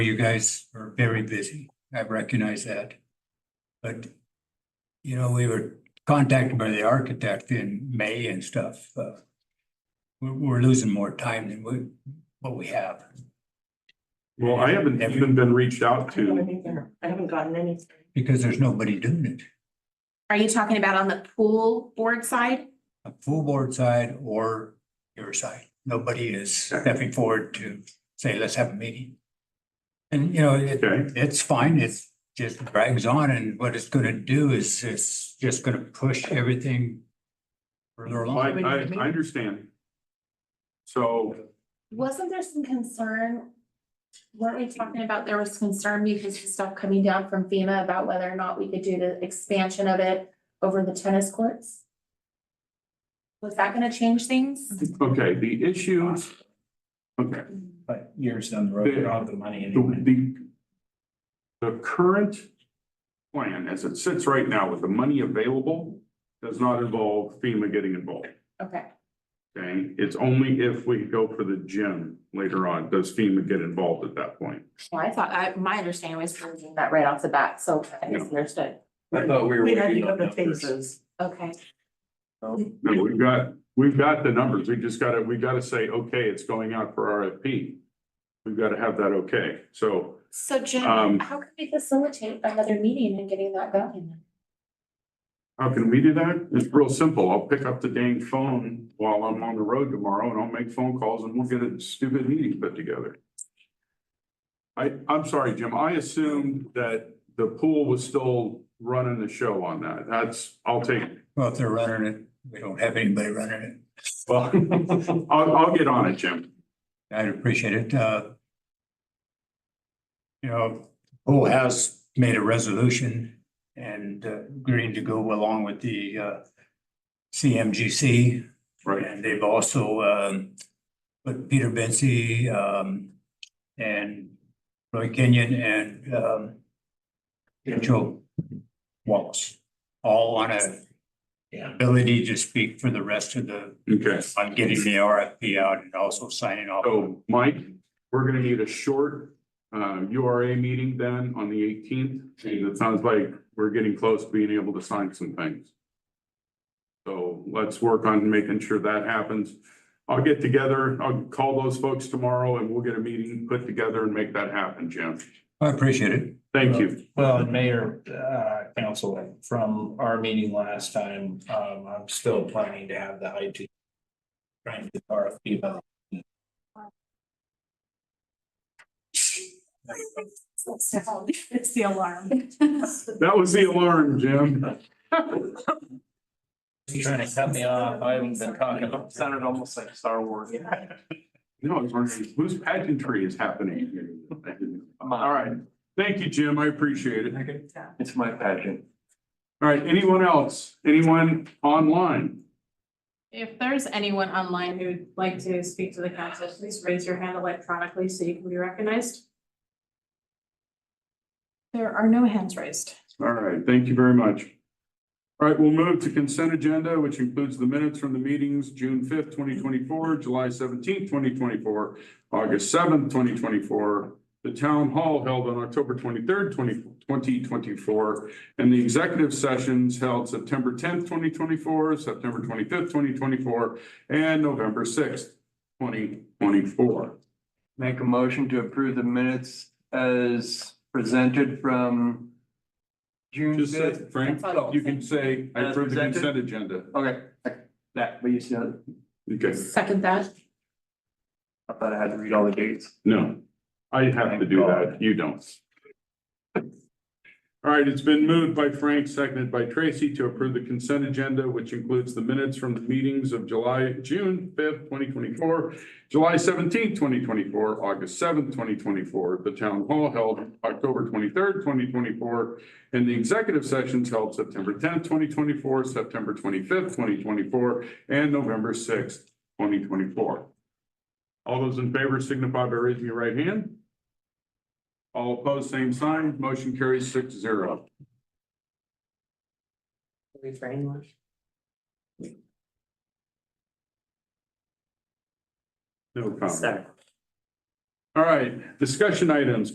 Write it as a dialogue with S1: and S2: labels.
S1: You guys are very busy. I recognize that. But, you know, we were contacted by the architect in May and stuff. uh, We're, we're losing more time than we, what we have.
S2: Well, I haven't
S1: Every-
S2: even been reached out
S3: I
S2: to.
S3: haven't either. I haven't gotten any.
S1: Because there's nobody doing it.
S4: Are you talking about on the pool board side?
S1: A full board side or your side. Nobody is stepping forward to say, let's have a meeting. And, you know, it,
S2: Okay,
S1: it's fine, it's just drags on and what it's gonna do is it's just gonna push everything further
S2: I,
S1: along.
S2: I, I understand. So,
S4: Wasn't there some concern? Weren't we talking about there was concern because of stuff coming down from FEMA about whether or not we could do the expansion of it over the tennis courts? Was that gonna change things?
S2: okay, the issues. Okay,
S5: But years down the road,
S2: The-
S5: you're out of the money
S2: the,
S5: anyway.
S2: the. The current plan as it sits right now with the money available does not involve FEMA getting involved.
S4: Okay,
S2: Okay, it's only if we go for the gym later on, does FEMA get involved at that point?
S4: well, I thought, I, my understanding was we were doing that right off the bat, so I misunderstood.
S5: I thought we were.
S3: We had to
S5: waiting
S3: go
S5: on
S3: to
S5: numbers.
S3: phases.
S4: Okay,
S2: No, we've got, we've got the numbers. We just gotta, we gotta say, okay, it's going out for RFP. We've gotta have that okay. So
S4: so Jim,
S2: Um,
S4: how can we facilitate another meeting and getting that going?
S2: how can we do that? It's real simple. I'll pick up the dang phone while I'm on the road tomorrow and I'll make phone calls and we'll get a stupid meeting put together. I, I'm sorry, Jim. I assumed that the pool was still running the show on that. That's, I'll take,
S1: Well, if they're running it, we don't have anybody running it.
S2: well, I'll, I'll get on it, Jim.
S1: I'd appreciate it, uh. You know, who has made a resolution and uh, agreeing to go along with the, uh. CMGC
S2: Right.
S1: and they've also, um, put Peter Bensy, um, and Roy Kenyon and, um. Rachel Wallace, all on a.
S5: Yeah.
S1: Ability to speak for the rest of the,
S2: Okay.
S1: on getting the RFP out and also signing off.
S2: So Mike, we're gonna need a short uh U R A meeting then on the eighteenth. It sounds like we're getting close to being able to sign some things. So let's work on making sure that happens. I'll get together, I'll call those folks tomorrow and we'll get a meeting put together and make that happen, Jim.
S1: I appreciate it.
S2: Thank you.
S5: Well, and Mayor, uh, Council, from our meeting last time, um, I'm still planning to have the IT. Trying to get RFP about.
S4: It's the alarm.
S2: That was the alarm, Jim.
S5: He's trying to cut me off. I haven't been talking. Sounded almost like Star Wars.
S2: No, I was wondering whose pageantry is happening here? All right. Thank you, Jim. I appreciate it.
S5: It's my pageant.
S2: All right, anyone else? Anyone online?
S6: If there's anyone online who'd like to speak to the council, please raise your hand electronically so you can be recognized. There are no hands raised.
S2: All right, thank you very much. All right, we'll move to consent agenda, which includes the minutes from the meetings, June fifth, twenty twenty-four, July seventeenth, twenty twenty-four, August seventh, twenty twenty-four, the town hall held on October twenty-third, 2024, and the executive sessions held September tenth, twenty twenty-four, September twenty-fifth, twenty twenty-four, and November sixth, twenty twenty-four.
S7: Make a motion to approve the minutes as presented from June
S2: Just say,
S7: fifth.
S2: Frank, you can say, I
S7: As
S2: approve the
S7: presented?
S2: consent agenda.
S7: Okay, that, but you said,
S2: Okay.
S4: Second that.
S7: I thought I had to read all the dates.
S2: No, I have to do that. You don't. All right, it's been moved by Frank, seconded by Tracy to approve the consent agenda, which includes the minutes from the meetings of July, June fifth, twenty twenty-four, July seventeenth, twenty twenty-four, August seventh, twenty twenty-four, the town hall held October twenty-third, twenty twenty-four, and the executive sessions held September tenth, twenty twenty-four, September twenty-fifth, twenty twenty-four, and November sixth, twenty twenty-four. All those in favor signify by raising your right hand. All opposed, same sign. Motion carries six zero. No problem. All right, discussion items,